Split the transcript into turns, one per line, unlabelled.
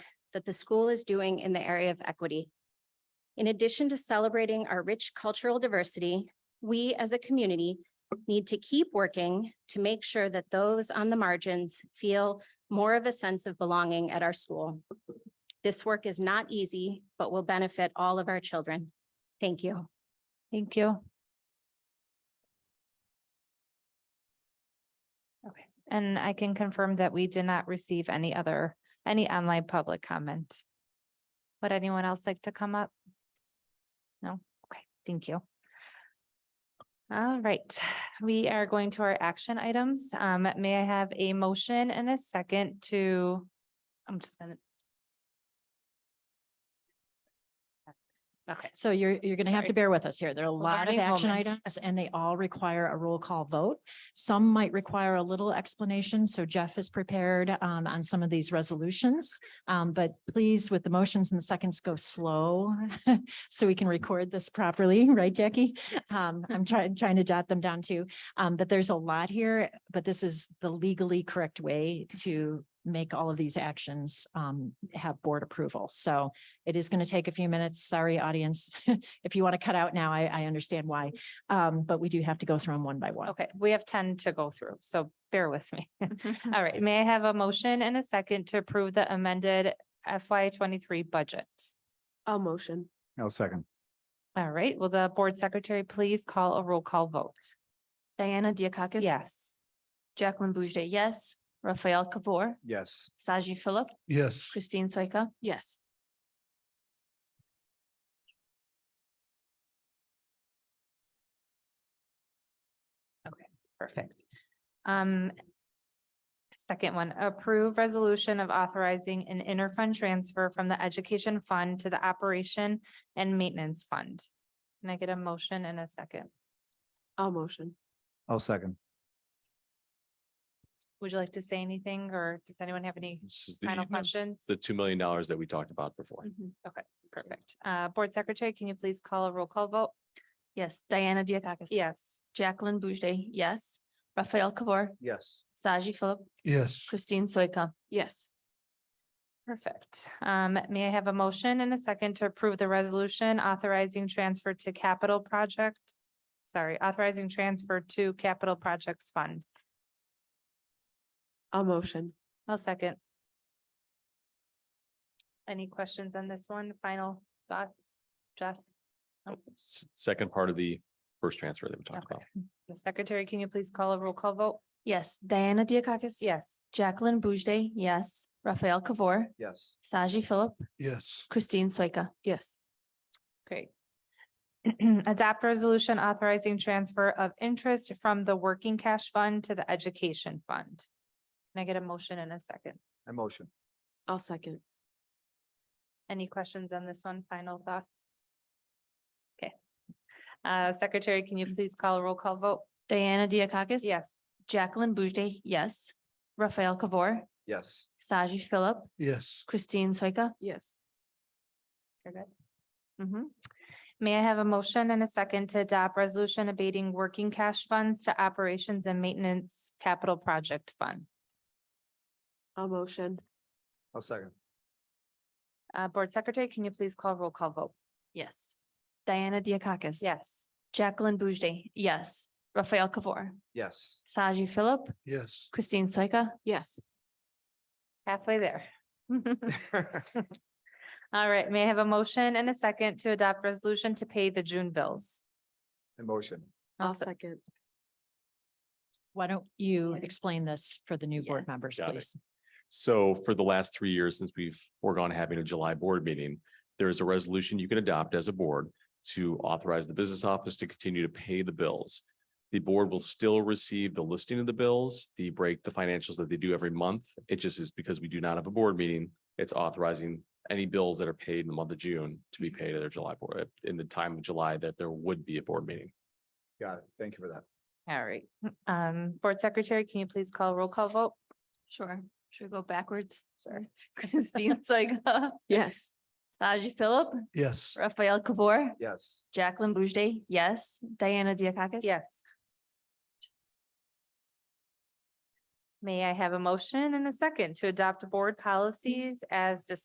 that the school is doing in the area of equity. In addition to celebrating our rich cultural diversity, we as a community need to keep working to make sure that those on the margins feel more of a sense of belonging at our school. This work is not easy, but will benefit all of our children. Thank you.
Thank you. Okay, and I can confirm that we did not receive any other, any online public comment. Would anyone else like to come up? No, okay, thank you. All right, we are going to our action items. Um, may I have a motion and a second to, I'm just gonna. Okay,
So you're, you're going to have
Sorry.
to bear with us here. There are a lot of
learning
action
moment.
items and they all require a roll call vote. Some might require a little explanation. So Jeff is prepared um, on some of these resolutions. Um, but please, with the motions and the seconds, go slow so we can record this properly, right, Jackie? Um, I'm trying, trying to jot them down too. Um, but there's a lot here, but this is the legally correct way to make all of these actions um, have board approval. So it is going to take a few minutes. Sorry, audience. if you want to cut out now, I, I understand why. Um, but we do have to go through them one by one.
Okay, we have ten to go through, so bear with me. All right, may I have a motion and a second to approve the amended FY twenty-three budget?
I'll motion.
I'll second.
All right, will the board secretary please call a roll call vote?
Diana Diakakis?
Yes.
Jacqueline Boujde, yes. Raphael Kabor?
Yes.
Saji Philip?
Yes,
Christine Soika? Yes.
Perfect. Um. Second one, approve resolution of authorizing an interfund transfer from the education fund to the operation and maintenance fund. Can I get a motion and a second?
I'll motion.
I'll second.
Would you like to say anything or does anyone have any
This is
final Mm-hmm.
the,
questions?
the two million dollars that we talked about before.
Perfect. Uh, Board Secretary, can you please call a roll call vote?
Yes. Diana Diakakis?
Yes.
Jacqueline Boujde, yes. Raphael Kabor?
Yes.
Saji Philip?
yes,
Christine Soika? Yes.
Perfect. Um, may I have a motion and a second to approve the resolution authorizing transfer to capital project? Sorry, authorizing transfer to capital projects fund.
I'll motion.
I'll second. Any questions on this one? Final thoughts? Jeff,
S- Second part of the first transfer that we talked
Okay.
about.
the secretary, can you please call a roll call vote?
Yes. Diana Diakakis?
Yes.
Jacqueline Boujde, yes. Raphael Kabor?
Yes.
Saji Philip?
yes,
Christine Soika? Yes.
Great. Adopt resolution authorizing transfer of interest from the working cash fund to the education fund. Can I get a motion in a second?
I motion.
I'll second.
Any questions on this one? Final thoughts? Okay. Uh, Secretary, can you please call a roll call vote?
Diana Diakakis?
Yes.
Jacqueline Boujde, yes. Raphael Kabor?
Yes.
Saji Philip?
yes,
Christine Soika? Yes.
You're good. hmm May I have a motion and a second to adopt resolution abating working cash funds to operations and maintenance capital project fund?
I'll motion.
I'll second.
Uh, Board Secretary, can you please call roll call vote?
Yes. Diana Diakakis?
Yes.
Jacqueline Boujde, yes. Raphael Kabor?
Yes.
Saji Philip?
yes.
Christine Soika? Yes.
Halfway there. All right, may I have a motion and a second to adopt resolution to pay the June bills?
I motion.
I'll se-
second.
Why don't you explain this for the new board members,
Got it.
please?
So for the last three years, since we've foregone having a July board meeting, there is a resolution you can adopt as a board to authorize the business office to continue to pay the bills. The board will still receive the listing of the bills, the break, the financials that they do every month. It just is because we do not have a board meeting. It's authorizing any bills that are paid in the month of June to
Mm-hmm.
be paid at their July board, in the time of July that there would be a board meeting.
Got it. Thank you for that.
All right, um, Board Secretary, can you please call roll call vote?
Sure. Should we go backwards? Sure. Christine Soika? Yes. Saji Philip?
Yes,
Raphael Kabor?
Yes.
Jacqueline Boujde, yes. Diana Diakakis?
Yes. May I have a motion and a second to adopt board policies as discussed